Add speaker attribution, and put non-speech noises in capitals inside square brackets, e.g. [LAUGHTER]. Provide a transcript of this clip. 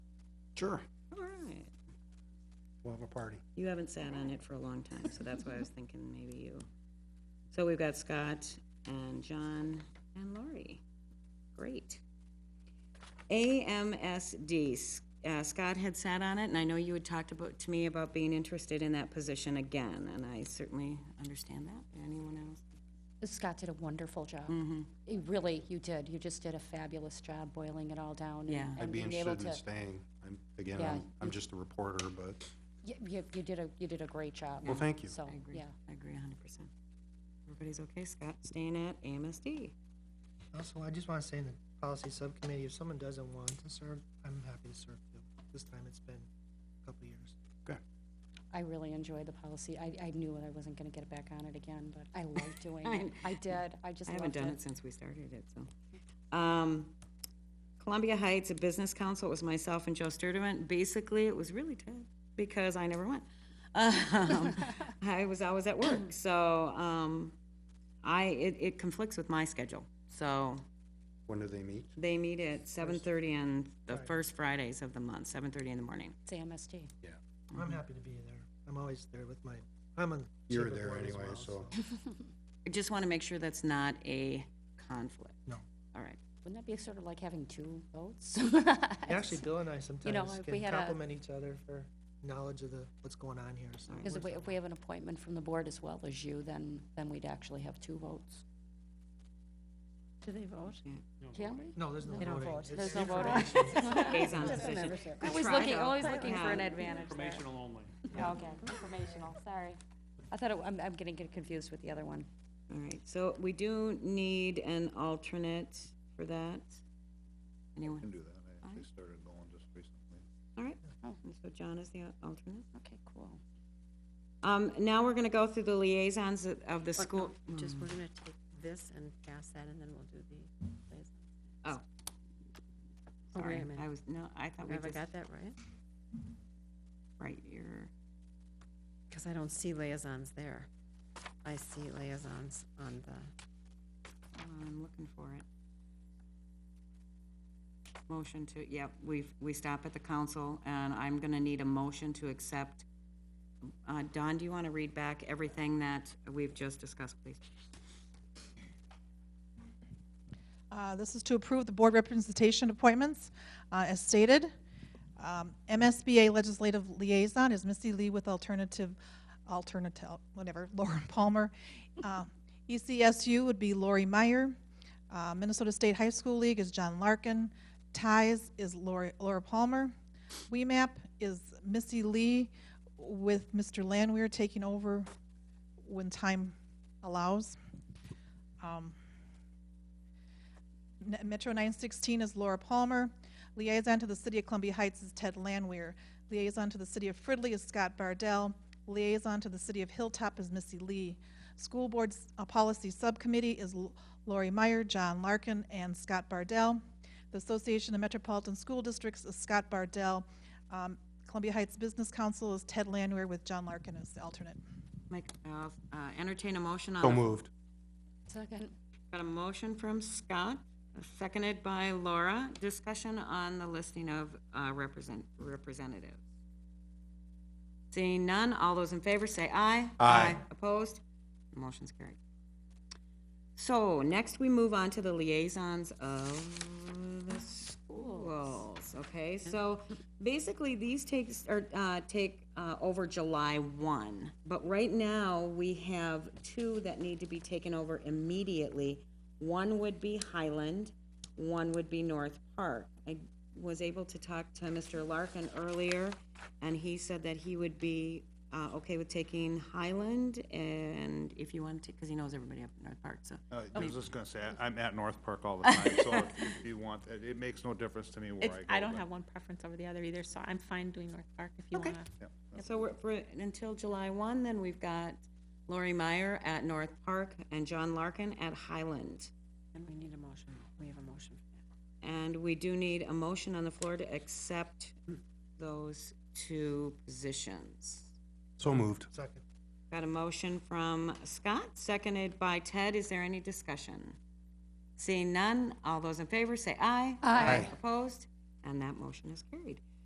Speaker 1: Sure.
Speaker 2: All right.
Speaker 1: We'll have a party.
Speaker 2: You haven't sat on it for a long time, so that's why I was thinking maybe you. So we've got Scott and John and Lori. Great. AMSD, S- uh, Scott had sat on it, and I know you had talked about, to me about being interested in that position again, and I certainly understand that. Anyone else?
Speaker 3: Scott did a wonderful job.
Speaker 2: Mm-hmm.
Speaker 3: He Really, you did. You just did a fabulous job boiling it all down. and-
Speaker 2: Yeah.
Speaker 3: and
Speaker 1: I'd be
Speaker 3: being able
Speaker 1: interested in
Speaker 3: to-
Speaker 1: staying. I'm, again,
Speaker 3: Yeah.
Speaker 1: I'm, I'm just a reporter, but,
Speaker 3: y- You, you did a, you did a great job.
Speaker 1: well, thank you.
Speaker 3: So,
Speaker 2: I agree.
Speaker 3: yeah.
Speaker 2: I agree hundred percent. Everybody's okay, Scott, staying at AMSD.
Speaker 4: Also, I just want to say in the policy subcommittee, if someone doesn't want to serve, I'm happy to serve too. This time it's been a couple years.
Speaker 1: Okay.
Speaker 3: I really enjoyed the policy. I, I knew I wasn't gonna get back on it again, but
Speaker 2: [LAUGHS]
Speaker 3: I loved doing
Speaker 2: I
Speaker 3: it. I did. I just
Speaker 2: I
Speaker 3: loved
Speaker 2: haven't done it since we started it, so. Um, Columbia Heights, a business council, it was myself and Joe Sturdivant. Basically, it was really tough because I never went. [LAUGHS] Um, I was always at work, so, um, I, it, it conflicts with my schedule. So
Speaker 1: When do they meet?
Speaker 2: they meet at seven thirty on the first Fridays of the month, seven thirty in the morning.
Speaker 3: It's AMSD.
Speaker 1: Yeah.
Speaker 4: I'm happy to be there. I'm always there with my, I'm on.
Speaker 1: Mm-hmm. You're
Speaker 4: Shaver
Speaker 1: there
Speaker 4: board as
Speaker 1: anyway, [LAUGHS]
Speaker 4: well,
Speaker 1: so.
Speaker 2: I just want to make sure that's not a conflict.
Speaker 4: No.
Speaker 2: All right.
Speaker 3: Wouldn't that be sort of like having two votes? [LAUGHS]
Speaker 4: Actually, Bill and I
Speaker 3: know,
Speaker 4: sometimes
Speaker 3: if we
Speaker 4: can
Speaker 3: had a-
Speaker 4: compliment each other for knowledge of the, what's going on here, so.
Speaker 3: Because if
Speaker 4: we're-
Speaker 3: we, if we have an appointment from the board as well as you, then, then we'd actually have two votes.
Speaker 5: Do they vote?
Speaker 3: Can we?
Speaker 4: No, there's no
Speaker 5: They don't
Speaker 4: voting.
Speaker 5: vote.
Speaker 4: It's
Speaker 3: There's no voting.
Speaker 4: information.
Speaker 1: [LAUGHS]
Speaker 2: [LAUGHS]
Speaker 5: [LAUGHS]
Speaker 2: Liaison position.
Speaker 3: I was
Speaker 2: tried,
Speaker 3: looking,
Speaker 2: though.
Speaker 3: always looking for an
Speaker 2: Yeah.
Speaker 3: advantage there.
Speaker 6: Informational only.
Speaker 3: Okay, informational, sorry. I thought, it- I'm, I'm getting confused with the other one.
Speaker 2: All right, so we do need an alternate for that. Anyone?
Speaker 7: do that. I actually started going just recently.
Speaker 2: All right,
Speaker 3: Oh.
Speaker 2: and so John is the alternate.
Speaker 3: Okay, cool.
Speaker 2: Um, now we're gonna go through the liaisons of- of the
Speaker 5: Or
Speaker 2: school.
Speaker 5: no, Just, we're gonna take this and pass that, and then we'll do the liaison.
Speaker 2: Oh.
Speaker 5: Oh, wait a
Speaker 2: Sorry,
Speaker 5: minute.
Speaker 2: I was, no, I thought we
Speaker 5: Have I
Speaker 2: just,
Speaker 5: got that right?
Speaker 2: right, you're,
Speaker 5: Because I don't see liaisons there. I see liaisons on the,
Speaker 2: I'm looking for it. Motion to, yep, we've, we stop at the council, and I'm gonna need a motion to accept. Uh, Don, do you wanna read back everything that we've just discussed, please?
Speaker 8: Uh, This is to approve the board representation appointments uh, as stated. Um, MSBA Legislative Liaison is Missy Lee with alternative, alternative, whatever, [LAUGHS] Lauren Palmer. Uh, ECSU would be Lori Meyer. Uh, Minnesota State High School League is John Larkin. Ties is Lori- Laura Palmer. WEMAP is Missy Lee with Mr. Lanweir taking over when time allows. Um, N- Metro 916 is Laura Palmer. Liaison to the City of Columbia Heights is Ted Lanweir. Liaison to the City of Fridley is Scott Bardell. Liaison to the City of Hilltop is Missy Lee. School Board's uh, Policy Subcommittee is L- Lori Meyer, John Larkin, and Scott Bardell. The Association of Metropolitan School Districts is Scott Bardell. Um, Columbia Heights Business Council is Ted Lanweir with John Larkin as the alternate.
Speaker 2: Mike, uh, uh, entertain a motion on
Speaker 1: So
Speaker 2: the
Speaker 1: moved.
Speaker 3: Second.
Speaker 2: Got a motion from Scott, seconded by Laura. Discussion on the listing of uh, represent, representatives. Seeing none, all those in favor say aye.
Speaker 1: Aye.
Speaker 2: Opposed? Motion's carried. So next we move on to the liaisons of the schools, okay? So basically, these takes, or, uh, take, uh, over July one. But right now, we have two that need to be taken over immediately. One would be Highland, one would be North Park. I was able to talk to Mr. Larkin earlier, and he said that he would be, uh, okay with taking Highland, and if you want to, because he knows everybody up in North Park, so.
Speaker 7: Uh, I was just gonna say, I- I'm at North Park all the time, so if- if you want, it it makes no difference to me where
Speaker 9: It's,
Speaker 7: I go.
Speaker 9: I don't
Speaker 7: but-
Speaker 9: have one preference over the other either, so I'm fine doing North Park if you
Speaker 2: Okay.
Speaker 9: wanna.
Speaker 2: So we're, for, until July one, then we've got Lori Meyer at North Park and John Larkin at Highland.
Speaker 5: and we need a motion. We have a motion. for
Speaker 2: And we do need a motion on the floor to accept those two positions.
Speaker 1: So moved.
Speaker 4: Second.
Speaker 2: Got a motion from Scott, seconded by Ted. Is there any discussion? Seeing none, all those in favor say aye.
Speaker 3: Aye.
Speaker 2: Opposed? And that motion is carried.